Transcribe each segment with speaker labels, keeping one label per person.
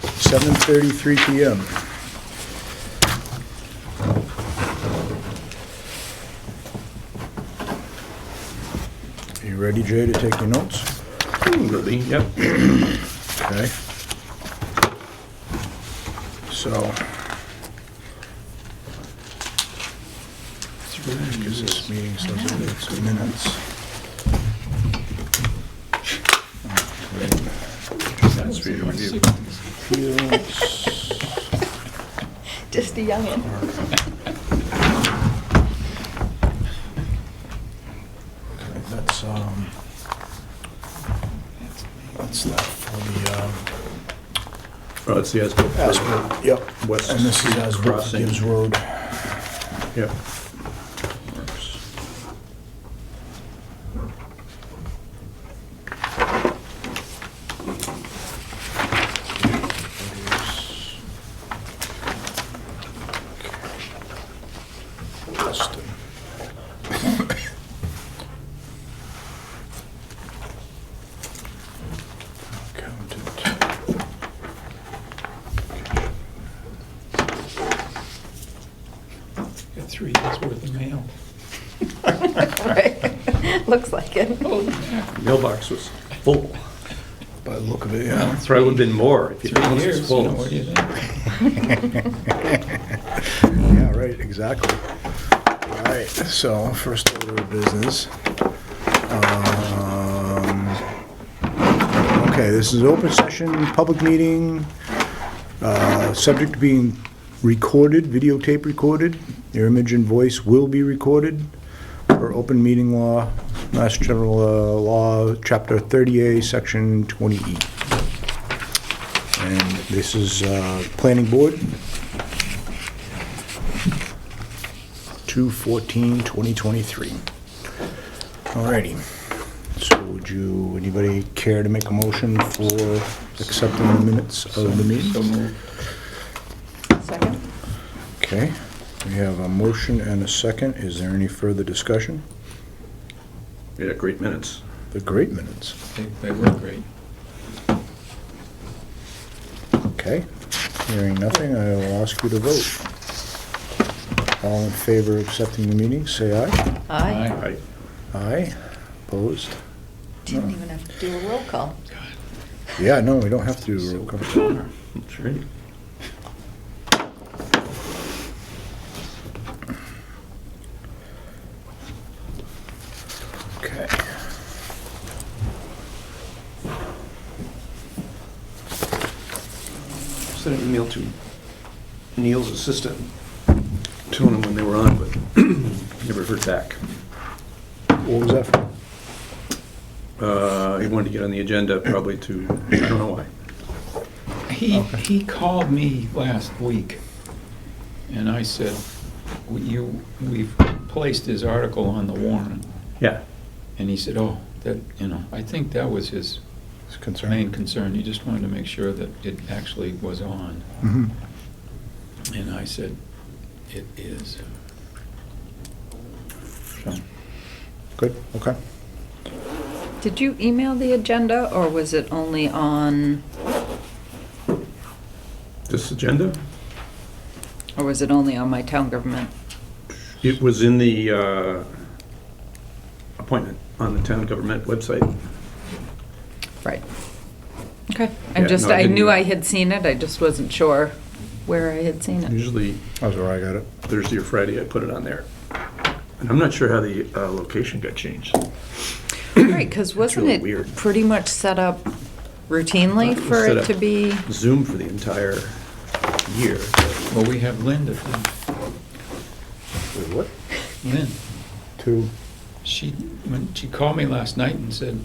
Speaker 1: 7:33 PM. You ready, Jay, to take your notes?
Speaker 2: Absolutely, yep.
Speaker 1: Okay. So. Because this meeting starts in six minutes.
Speaker 2: That's for your review.
Speaker 1: Appeals.
Speaker 3: Just a youngin'.
Speaker 1: Okay, That's, um, that's that for the, um,
Speaker 2: Oh, it's the Asbill.
Speaker 1: Asbrook, yep.
Speaker 2: West
Speaker 1: And this is Asbrook
Speaker 2: Crossing.
Speaker 1: Gibbs Road.
Speaker 2: Yep.
Speaker 1: Justin. Accountant.
Speaker 4: Got three years worth of mail.
Speaker 3: Right. Looks like it.
Speaker 2: Mailbox was full.
Speaker 1: By the look of it, yeah.
Speaker 2: It's Probably would have been more if your
Speaker 4: Three
Speaker 2: house was
Speaker 4: years, you know, what do you
Speaker 2: full.
Speaker 4: think?
Speaker 1: Yeah, right, exactly. All right, so first order of business. Um, Okay, this is open session, public meeting, uh, subject to being recorded, videotape recorded. Your image and voice will be recorded per open meeting law, Mass General uh, Law, Chapter 30A, Section 20E. And this is uh, Planning Board, 2/14/2023. All righty. So would you, anybody care to make a motion for accepting the minutes of the meeting?
Speaker 3: Second?
Speaker 1: Okay, we have a motion and a second. Is there any further discussion?
Speaker 2: Yeah, great minutes.
Speaker 1: The great minutes.
Speaker 4: They, they were great.
Speaker 1: Okay, hearing nothing, I will ask you to vote. All in favor of accepting the meeting, say aye.
Speaker 3: Aye.
Speaker 2: Right.
Speaker 1: Aye. Opposed?
Speaker 3: Didn't even have to do a roll call.
Speaker 1: Yeah, no, we don't have to do a roll call.
Speaker 2: That's right.
Speaker 1: Okay.
Speaker 2: Sent an email to Neil's assistant, telling him when they were on, but never heard back.
Speaker 1: What was that for?
Speaker 2: Uh, He wanted to get on the agenda probably to, I don't know why.
Speaker 4: He, he called me last week, and I said, "We- you, we've placed his article on the warrant.
Speaker 2: Yeah.
Speaker 4: And he said, oh, that, you know, I think that was his
Speaker 1: It's concerning.
Speaker 4: main concern. He just wanted to make sure that it actually was on.
Speaker 1: Mhm.
Speaker 4: And I said, it is. So,
Speaker 1: Good, okay.
Speaker 3: Did you email the agenda or was it only on,
Speaker 2: This agenda?
Speaker 3: or was it only on my town government?
Speaker 2: It was in the uh, appointment on the town government website.
Speaker 3: Right. Okay.
Speaker 2: Yeah,
Speaker 3: I just,
Speaker 2: no, I
Speaker 3: I
Speaker 2: didn't-
Speaker 3: knew I had seen it. I just wasn't sure where I had seen it.
Speaker 2: Usually
Speaker 1: That's where I got it.
Speaker 2: Thursday or Friday, I put it on there. And I'm not sure how the uh, location got changed.
Speaker 3: Right, because wasn't
Speaker 2: really
Speaker 3: it
Speaker 2: weird.
Speaker 3: pretty much set up routinely
Speaker 2: It was
Speaker 3: for
Speaker 2: set
Speaker 3: it
Speaker 2: up.
Speaker 3: to be?
Speaker 2: Zoom for the entire year.
Speaker 4: Well, we have Linda, then.
Speaker 1: Wait, what?
Speaker 4: Lynn.
Speaker 1: Two.
Speaker 4: She, when she called me last night and said,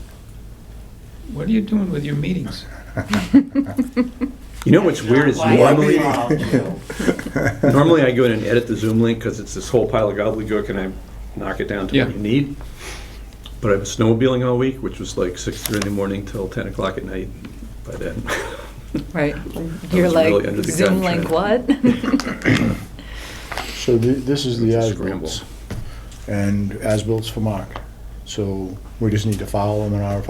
Speaker 4: what are you doing with your meetings?
Speaker 2: You know what's weird is
Speaker 5: Why are we
Speaker 2: normally,
Speaker 5: all do?
Speaker 2: normally I go in and edit the Zoom link because it's this whole pile of gobbledygook and I knock it down to what
Speaker 4: Yeah.
Speaker 2: you need. But I was snowmobiling all week, which was like six thirty in the morning till ten o'clock at night by then.
Speaker 3: Right. You're
Speaker 2: was
Speaker 3: like,
Speaker 2: really under the gun,
Speaker 3: Zoom link what?
Speaker 1: So thi- this is the
Speaker 2: It's a
Speaker 1: as-built, and as-bilt's for Mark. So we just need to file them in our